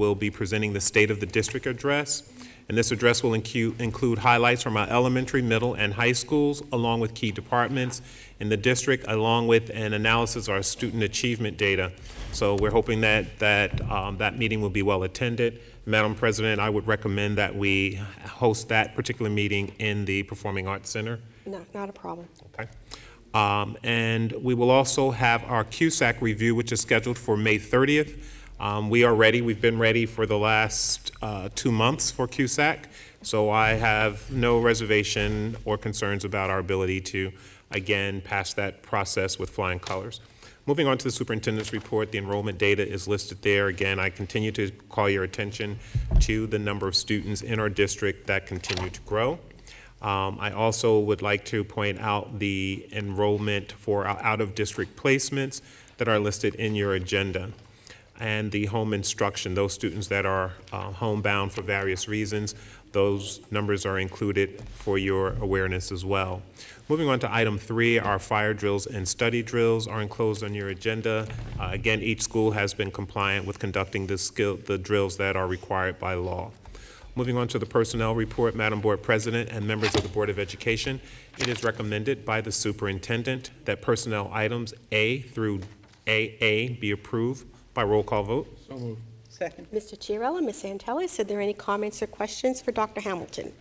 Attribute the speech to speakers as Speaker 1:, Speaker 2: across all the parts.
Speaker 1: will be presenting the State of the District Address. And this address will incu- include highlights from our elementary, middle, and high schools, along with key departments in the district, along with an analysis of our student achievement data. So we're hoping that, that, um, that meeting will be well-attended. Madam President, I would recommend that we host that particular meeting in the Performing Arts Center.
Speaker 2: No, not a problem.
Speaker 1: Okay. Um, And we will also have our CUSAC review, which is scheduled for May 30th. Um, We are ready, we've been ready for the last uh, two months for CUSAC, so I have no reservation or concerns about our ability to, again, pass that process with flying colors. Moving on to the superintendent's report, the enrollment data is listed there. Again, I continue to call your attention to the number of students in our district that continue to grow. Um, I also would like to point out the enrollment for our out-of-district placements that are listed in your agenda. And the home instruction, those students that are uh, homebound for various reasons, those numbers are included for your awareness as well. Moving on to item three, our fire drills and study drills are enclosed on your agenda. Uh, Again, each school has been compliant with conducting the skill, the drills that are required by law. Moving on to the Personnel Report, Madam Board President and members of the Board of Education, it is recommended by the Superintendent that personnel items A through AA be approved by roll call vote.
Speaker 3: Second.
Speaker 2: Mr. Chiarella, Ms. Santelli, is there any comments or questions for Dr. Hamilton?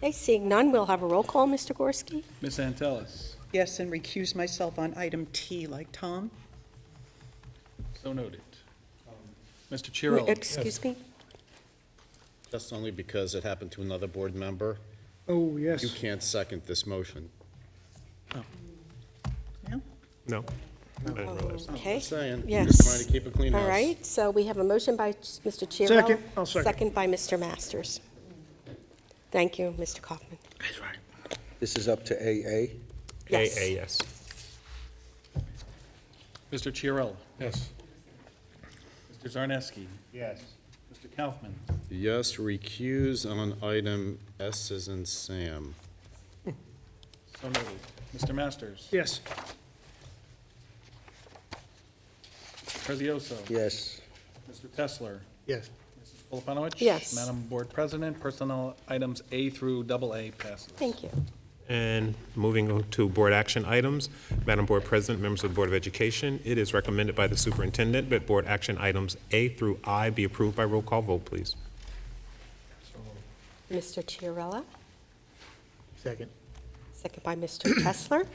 Speaker 2: Okay, seeing none, we'll have a roll call, Mr. Gorski.
Speaker 4: Ms. Antelis,
Speaker 3: Yes, and recuse myself on item T, like Tom.
Speaker 4: so noted. Mr.
Speaker 2: M-
Speaker 4: Chiarelli,
Speaker 2: Excuse me?
Speaker 5: That's only because it happened to another board member.
Speaker 6: Oh, yes.
Speaker 5: You can't second this motion.
Speaker 3: No?
Speaker 1: No? I didn't realize that.
Speaker 2: Okay.
Speaker 5: Just saying.
Speaker 2: Yes.
Speaker 5: Just trying to keep a clean house.
Speaker 2: All right, so we have a motion by Mr. Chiarella.
Speaker 6: Second, I'll second.
Speaker 2: by Mr. Masters. Thank you, Mr. Kaufman.
Speaker 7: This is up to AA.
Speaker 2: Yes.
Speaker 1: AA, yes.
Speaker 4: Mr. Chiarella. Yes. Mr. Zarneski. Yes. Mr. Kaufman.
Speaker 5: Yes, recuse on item S as in Sam.
Speaker 4: So noted. Mr. Masters.
Speaker 6: Yes.
Speaker 4: Prezioso.
Speaker 7: Yes.
Speaker 4: Mr. Tesler.
Speaker 6: Yes.
Speaker 4: Mrs. Koloponowicz.
Speaker 2: Yes.
Speaker 4: Madam Board President, personnel items A through double A passes.
Speaker 2: Thank you.
Speaker 1: And moving on to board action items, Madam Board President, members of the Board of Education, it is recommended by the Superintendent that board action items A through I be approved by roll call vote, please.
Speaker 2: Mr. Chiarella,
Speaker 6: Second.
Speaker 2: second by Mr. Kessler.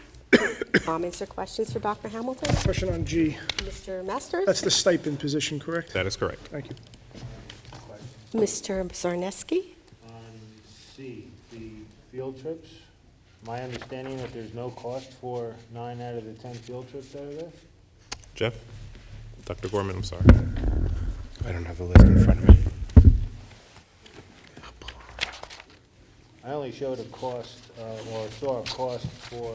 Speaker 2: Comments or questions for Dr. Hamilton?
Speaker 6: Question on G.
Speaker 2: Mr. Masters?
Speaker 6: That's the stipend position, correct?
Speaker 1: That is correct.
Speaker 6: Thank you.
Speaker 2: Mr. Zarneski?
Speaker 8: On C, the field trips, my understanding that there's no cost for nine out of the 10 field trips that are there?
Speaker 1: Jeff? Dr. Gorman, I'm sorry.
Speaker 9: I don't have the list in front of me.
Speaker 8: I only showed a cost, uh, or saw a cost for,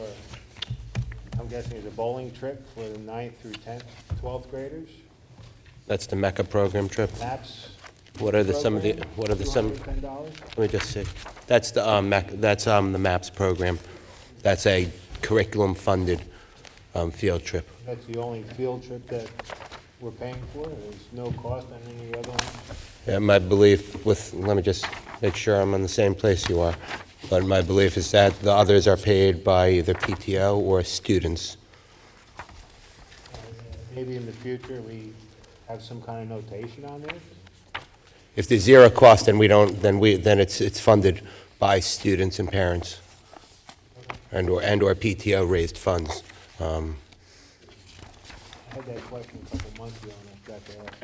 Speaker 8: I'm guessing it's a bowling trip for the ninth through 10th, 12th graders,
Speaker 9: That's the Mecca program trip.
Speaker 8: MAPS.
Speaker 9: What are the, some of the,
Speaker 8: program,
Speaker 9: what are the, some,
Speaker 8: $210.
Speaker 9: let me just see. That's the, um, Mec, that's, um, the MAPS program. That's a curriculum-funded, um, field trip.
Speaker 8: That's the only field trip that we're paying for, there's no cost on any other one?
Speaker 9: And my belief with, let me just make sure I'm on the same place you are, but my belief is that the others are paid by either PTO or students.
Speaker 8: Maybe in the future, we have some kind of notation on there?
Speaker 9: If there's zero cost, then we don't, then we, then it's, it's funded by students and parents and/or, and/or PTO-raised funds. Um,
Speaker 8: I had that question a couple months ago, and I forgot to ask.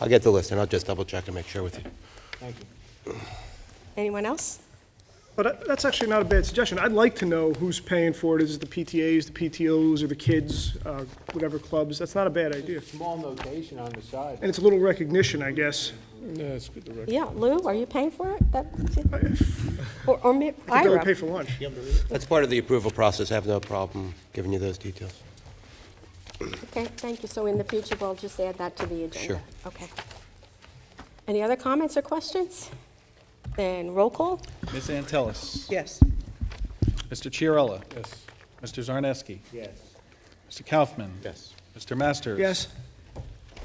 Speaker 9: I'll get the list, and I'll just double-check and make sure with you.
Speaker 8: Thank you.
Speaker 2: Anyone else?
Speaker 6: But that- that's actually not a bad suggestion. I'd like to know who's paying for it. Is it the PTAs, the PTOs, or the kids, uh, whatever clubs? That's not a bad idea.
Speaker 8: Small notation on the side.
Speaker 6: And it's a little recognition, I guess.
Speaker 2: Yeah, Lou, are you paying for it? That- Or, or may-
Speaker 6: I think I would
Speaker 2: Ira?
Speaker 6: pay for lunch.
Speaker 9: That's part of the approval process. I have no problem giving you those details.
Speaker 2: Okay, thank you. So in the future, we'll just add that to the agenda.
Speaker 9: Sure.
Speaker 2: Okay. Any other comments or questions? Then roll call?
Speaker 4: Ms. Antelis.
Speaker 3: Yes.
Speaker 4: Mr. Chiarella. Yes. Mr. Zarneski.
Speaker 8: Yes.
Speaker 4: Mr. Kaufman.
Speaker 5: Yes.
Speaker 4: Mr. Masters.
Speaker 6: Yes.